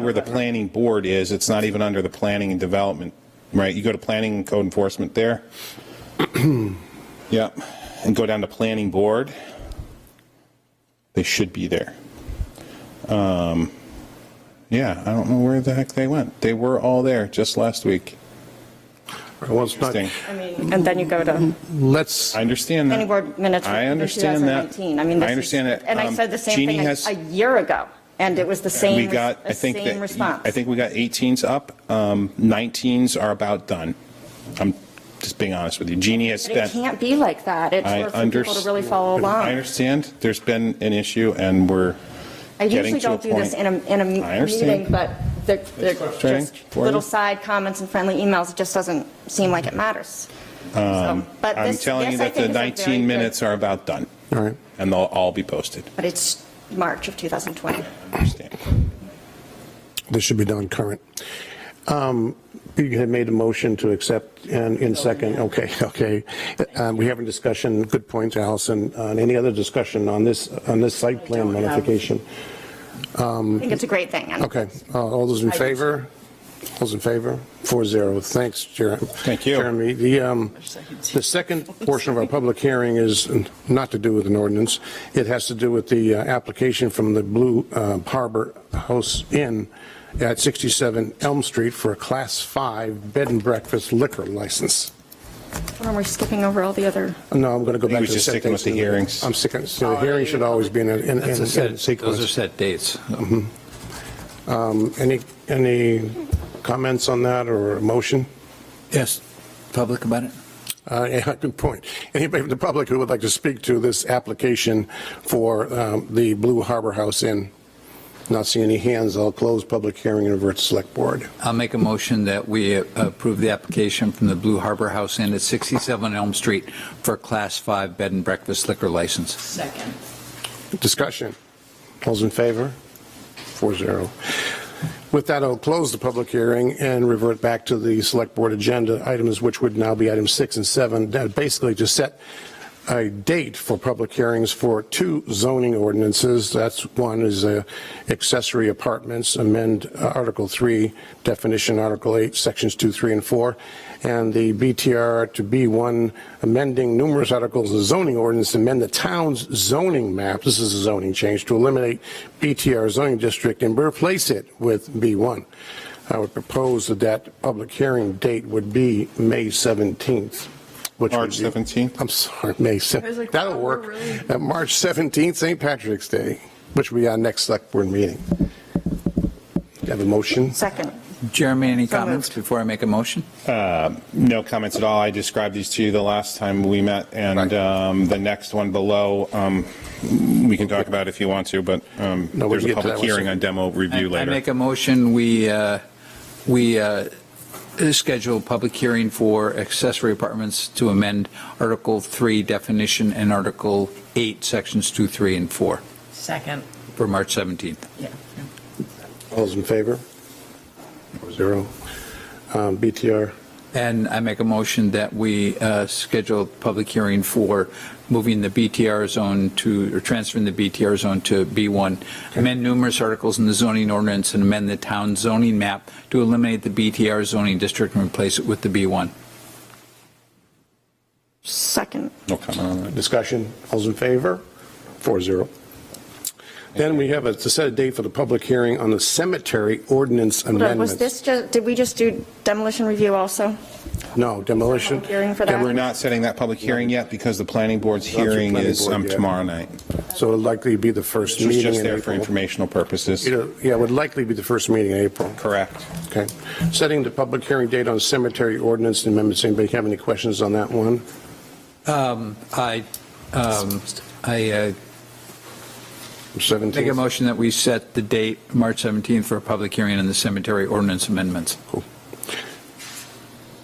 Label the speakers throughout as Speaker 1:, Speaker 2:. Speaker 1: where the planning board is, it's not even under the planning and development, right? You go to planning and code enforcement there. Yep, and go down to planning board. They should be there. Um, Yeah, I don't know where the heck they went. They were all there just last week.
Speaker 2: Well, it's not,
Speaker 1: Interesting.
Speaker 3: And then you go to
Speaker 2: let's,
Speaker 1: I understand that.
Speaker 3: planning board minutes for
Speaker 1: I understand that.
Speaker 3: 2019. I mean, this
Speaker 1: I
Speaker 3: is-
Speaker 1: understand that.
Speaker 3: And I
Speaker 1: Um,
Speaker 3: said the same
Speaker 1: Jeannie
Speaker 3: thing a-
Speaker 1: has-
Speaker 3: a year ago, and it was the same,
Speaker 1: We got, I
Speaker 3: the
Speaker 1: think that. e,
Speaker 3: same response.
Speaker 1: I think we got 18s up. Um, 19s are about done. I'm just being honest with you. Jeannie has
Speaker 3: But it
Speaker 1: spent.
Speaker 3: can't be like that. It's
Speaker 1: I
Speaker 3: hard for people to
Speaker 1: underst-
Speaker 3: really follow
Speaker 1: I
Speaker 3: along.
Speaker 1: understand. There's been an issue and we're
Speaker 3: I
Speaker 1: getting
Speaker 3: usually
Speaker 1: to a
Speaker 3: don't do this in
Speaker 1: point.
Speaker 3: a, in a
Speaker 1: I
Speaker 3: m-
Speaker 1: understand.
Speaker 3: meeting, but they're, they're
Speaker 1: frustrating
Speaker 3: just
Speaker 1: for you.
Speaker 3: little side comments and friendly emails. It just doesn't seem like it matters. So, But
Speaker 1: Um, I'm
Speaker 3: this-
Speaker 1: telling you
Speaker 3: this, I
Speaker 1: that the
Speaker 3: think, is a very
Speaker 1: 19
Speaker 3: good-
Speaker 1: minutes are about done.
Speaker 2: all right.
Speaker 1: And they'll all be posted.
Speaker 3: But it's March of 2020.
Speaker 1: Understand.
Speaker 2: This should be done current. Um, You had made a motion to accept and in second, okay, okay. Um, We have a discussion, good point, Allison. On Any other discussion on this, on this site plan modification?
Speaker 3: I think it's a great thing. and-
Speaker 2: Okay, uh, all those in favor? Those in favor? Four zero. Thanks, Jeremy.
Speaker 1: Thank you.
Speaker 2: Jeremy, the, um, the second portion of our public hearing is not to do with an ordinance. It has to do with the uh, application from the Blue uh, Harbor House Inn at 67 Elm Street for a Class 5 Bed and Breakfast liquor license.
Speaker 3: Or We're skipping over all the other.
Speaker 2: No, I'm going to go
Speaker 1: think
Speaker 2: back
Speaker 1: we're
Speaker 2: to the
Speaker 1: just
Speaker 2: set
Speaker 1: sticking with
Speaker 2: dates
Speaker 1: the
Speaker 2: in a minute.
Speaker 1: hearings.
Speaker 2: I'm sticking, so the hearing should always be in, a- in in-
Speaker 4: That's
Speaker 2: in
Speaker 4: a set,
Speaker 2: sequence.
Speaker 4: those are set dates.
Speaker 2: Any, any comments on that or a motion?
Speaker 4: Yes, public about it?
Speaker 2: Uh, Yeah, good point. Anybody from the public who would like to speak to this application for um, the Blue Harbor House Inn? Not seeing any hands, I'll close public hearing and revert to select board.
Speaker 4: I'll make a motion that we uh, approve the application from the Blue Harbor House Inn at 67 Elm Street for a Class 5 Bed and Breakfast liquor license.
Speaker 5: Second.
Speaker 2: Discussion. All's in favor? Four zero. With that, I'll close the public hearing and revert back to the select board agenda items, which would now be items six and seven, that basically to set a date for public hearings for two zoning ordinances. That's one is uh, accessory apartments, amend uh, Article 3, definition Article 8, Sections 2, 3, and 4, and the BTR to B1, amending numerous articles of zoning ordinance, amend the town's zoning map, this is a zoning change, to eliminate BTR zoning district and replace it with B1. I would propose that that public hearing date would be May 17th, which would
Speaker 1: March
Speaker 2: be-
Speaker 1: 17th?
Speaker 2: I'm sorry, May 7th. That'll work. Uh, March 17th, St. Patrick's Day, which will be our next select board meeting. Have a motion?
Speaker 3: Second.
Speaker 4: Jeremy, any
Speaker 3: So
Speaker 4: comments
Speaker 3: moved.
Speaker 4: before I make a motion?
Speaker 1: No comments at all. I described these to you the last time we met, and
Speaker 2: Right.
Speaker 1: um, the next one below, um, we can talk about if you want to, but um,
Speaker 2: No, we
Speaker 1: there's
Speaker 2: can
Speaker 1: a
Speaker 2: get to that
Speaker 1: public
Speaker 2: one
Speaker 1: hearing on
Speaker 2: soon.
Speaker 1: demo review
Speaker 4: I- I
Speaker 1: later.
Speaker 4: make a motion, we, uh, we uh, schedule a public hearing for accessory apartments to amend Article 3 definition and Article 8, Sections 2, 3, and 4
Speaker 5: Second.
Speaker 4: for March 17th.
Speaker 2: All's in favor? Four zero. Um, BTR,
Speaker 4: And I make a motion that we uh, schedule a public hearing for moving the BTR zone to, or transferring the BTR zone to B1, amend numerous articles in the zoning ordinance and amend the town zoning map to eliminate the BTR zoning district and replace it with the B1.
Speaker 3: Second.
Speaker 1: No comment on that.
Speaker 2: discussion, all's in favor? Four zero. Then we have a, to set a date for the public hearing on the cemetery ordinance
Speaker 3: But Was
Speaker 2: amendments.
Speaker 3: this just, did we just do demolition review also?
Speaker 2: No, demolition.
Speaker 3: Hearing for
Speaker 1: We're
Speaker 3: that?
Speaker 1: not setting that public hearing yet because the planning board's
Speaker 2: the
Speaker 1: hearing
Speaker 2: planning
Speaker 1: is
Speaker 2: board,
Speaker 1: um,
Speaker 2: yeah.
Speaker 1: tomorrow night.
Speaker 2: So it'll likely be the first
Speaker 1: It's
Speaker 2: meeting
Speaker 1: just
Speaker 2: in
Speaker 1: there for
Speaker 2: April.
Speaker 1: informational purposes.
Speaker 2: It'll- Yeah, it would likely be the first meeting in April.
Speaker 1: Correct.
Speaker 2: Okay. Setting the public hearing date on cemetery ordinance amendments. Anybody have any questions on that one?
Speaker 4: Um, I, um, I uh, make a
Speaker 2: 17th?
Speaker 4: motion that we set the date, March 17th, for a public hearing on the cemetery ordinance amendments.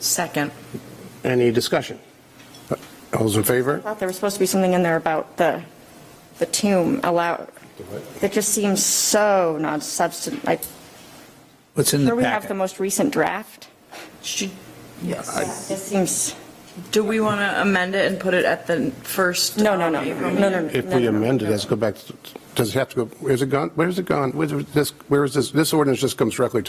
Speaker 5: Second.
Speaker 2: Any discussion? All those in favor?
Speaker 3: I thought there was supposed to be something in there about the, the tomb allow, that just seems so non-substantive. Like,
Speaker 4: What's in the
Speaker 3: here we
Speaker 4: packet?
Speaker 3: have the most recent draft.
Speaker 5: Should, yes.
Speaker 3: This seems,
Speaker 5: Do we want to amend it and put it at the first?
Speaker 3: No, no, no,
Speaker 5: um,
Speaker 3: no,
Speaker 5: April
Speaker 3: no,
Speaker 5: meeting?
Speaker 3: no.
Speaker 2: If
Speaker 3: no,
Speaker 2: we
Speaker 3: no, no,
Speaker 2: amend it,
Speaker 3: no.
Speaker 2: does it go back, to- does it have to go, where's it gone, where's it gone, where's this, where is this, this ordinance just comes directly to